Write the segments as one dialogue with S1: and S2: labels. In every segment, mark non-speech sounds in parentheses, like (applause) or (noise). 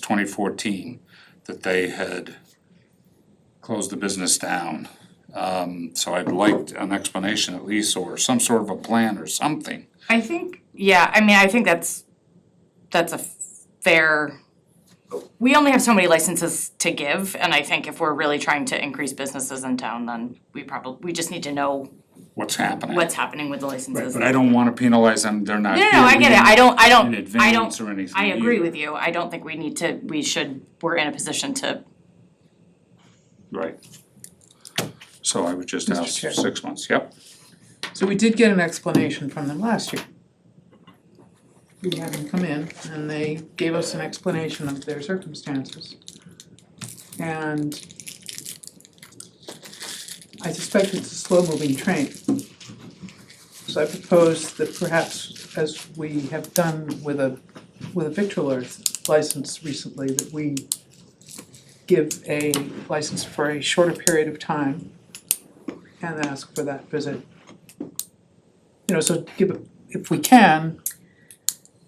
S1: twenty fourteen, that they had closed the business down. Um, so I'd like an explanation at least, or some sort of a plan or something.
S2: I think, yeah, I mean, I think that's, that's a fair, we only have so many licenses to give, and I think if we're really trying to increase businesses in town, then we probably, we just need to know
S1: What's happening?
S2: what's happening with the
S1: Right,
S2: licenses.
S1: But I don't wanna penalize them, they're not
S2: No,
S1: here.
S2: no, I get it, I don't, I
S1: In
S2: don't, I
S1: advance
S2: don't,
S1: or anything.
S2: I agree
S1: either.
S2: with you, I don't think we need to, we should, we're in a position to,
S1: Right. So I would just
S3: Mr.
S1: ask for
S3: Chair.
S1: six months, yep.
S3: So we did get an explanation from them last year. We had them come in and they gave us an explanation of their circumstances. And I suspect it's a slow-moving train. So I propose that perhaps, as we have done with a, with a victualler license recently, that we give a license for a shorter period of time and ask for that visit you know, so give, it- if we can,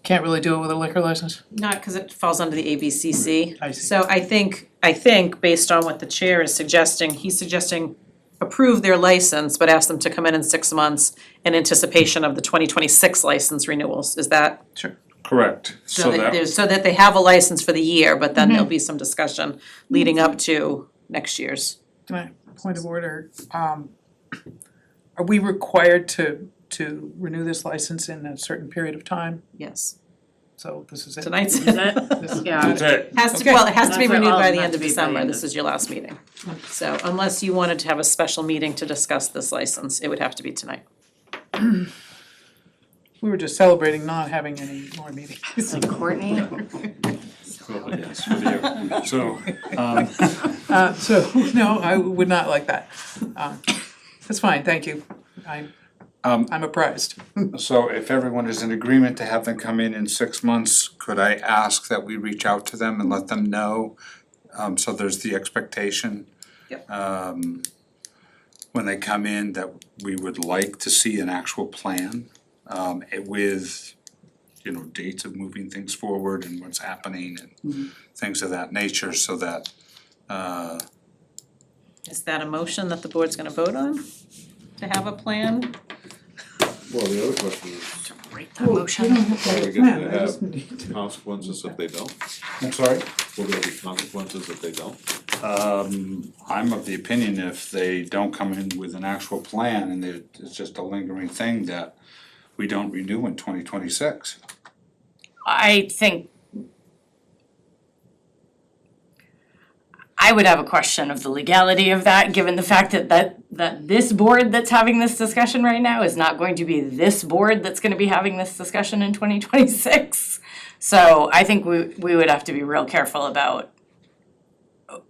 S3: can't really do it with a liquor license?
S4: Not because it falls under the ABCC.
S3: I see.
S4: So I think, I think based on what the chair is suggesting, he's suggesting approve their license, but ask them to come in in six months in anticipation of the twenty twenty-six license renewals. Is that,
S3: Sure.
S1: Correct, so
S4: so that,
S1: that,
S4: there's- so that they have a license for the year, but then
S5: Mm-hmm.
S4: there'll be some discussion leading up to next year's.
S3: Can I, point of order, um, are we required to, to renew this license in a certain period of time?
S4: Yes,
S3: So this is it.
S4: tonight's,
S3: This is-
S5: Yeah.
S1: that's it,
S4: (laughs) has to,
S3: Okay.
S4: well, it has to be
S5: That's what
S4: renewed
S5: all
S4: by the
S5: has
S4: end
S5: to
S4: of
S5: be by the
S4: December.
S5: end
S4: This
S5: of-
S4: is your last meeting. So unless you wanted to have a special meeting to discuss this license, it would have to be tonight.
S3: We were just celebrating not having any more
S2: (laughs)
S3: meetings.
S2: Courtney?
S1: Well, yes, for you. so, um,
S3: Uh, so, no, I would not like that. Um, That's fine, thank you. I'm,
S1: Um,
S3: I'm apprised.
S1: So if everyone is in agreement to have them come in in six months, could I ask that we reach out to them and let them know? Um, so there's the expectation.
S4: Yep.
S1: Um, when they come in, that we would like to see an actual plan, um, eh, with, you know, dates of moving things forward and what's happening and things of that nature, so that, uh,
S4: Is that a motion that the board's gonna vote on? To have a plan?
S6: Well, the other question is, are we
S3: Yeah,
S6: gonna
S3: I just
S6: have
S3: need to-
S6: consequences if they don't?
S1: I'm sorry?
S6: Will there be consequences if they don't?
S1: Um, I'm of the opinion if they don't come in with an actual plan and it- it's just a lingering thing that we don't renew in twenty twenty-six.
S2: I think I would have a question of the legality of that, given the fact that that that this board that's having this discussion right now is not going to be this board that's gonna be having this discussion in twenty twenty six. So I think we we would have to be real careful about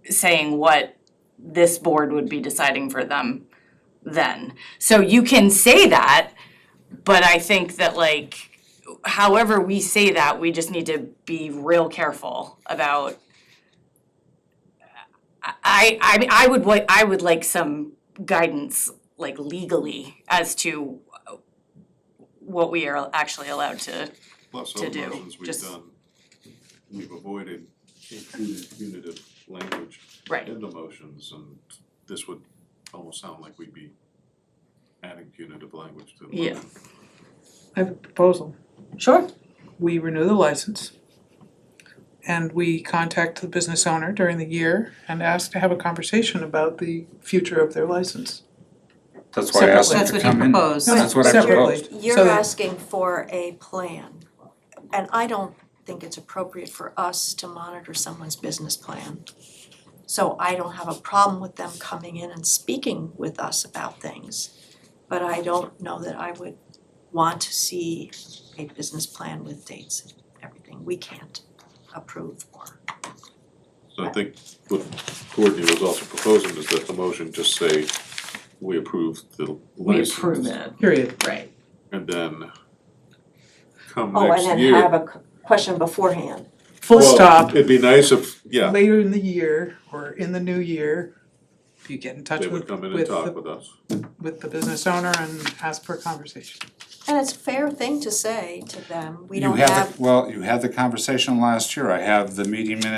S2: saying what this board would be deciding for them then. So you can say that, but I think that like however we say that, we just need to be real careful about. I I mean, I would like, I would like some guidance, like legally, as to what we are actually allowed to,
S6: Plus,
S2: To
S6: other
S2: do,
S6: motions we've
S2: just-
S6: done, we've avoided including punitive language
S2: right,
S6: in the motions, and this would almost sound like we'd be adding punitive language to the
S2: Yeah.
S6: motion.
S3: I have a proposal.
S4: Sure.
S3: we renew the license. And we contact the business owner during the year and ask to have a conversation about the future of their license.
S1: That's why I asked them
S4: That's
S1: to
S4: what he
S1: come in.
S4: proposed.
S1: That's what I
S3: Separately.
S1: proposed.
S3: So
S7: You're
S3: that-
S7: asking for a plan, and I don't think it's appropriate for us to monitor someone's business plan. So I don't have a problem with them coming in and speaking with us about things. But I don't know that I would want to see a business plan with dates and everything. We can't approve or.
S6: So I think what Courtney was also proposing is that the motion just say, we approve the
S2: we
S6: license.
S2: approve it,
S3: Period.
S2: right.
S6: And then come
S7: Oh,
S6: next
S7: and
S6: year.
S7: then have a question beforehand.
S3: Full
S6: Well,
S3: stop.
S6: It'd be nice if, yeah,
S3: Later in the year or in the new year, if you get in touch
S6: They
S3: with,
S6: would come in and
S3: with,
S6: talk
S3: the-
S6: with us.
S3: with the business owner and ask for a conversation.
S7: And it's a fair thing to say to them, we
S1: You
S7: don't
S1: had the-
S7: have
S1: Well, you had the conversation last year, I have the meeting minutes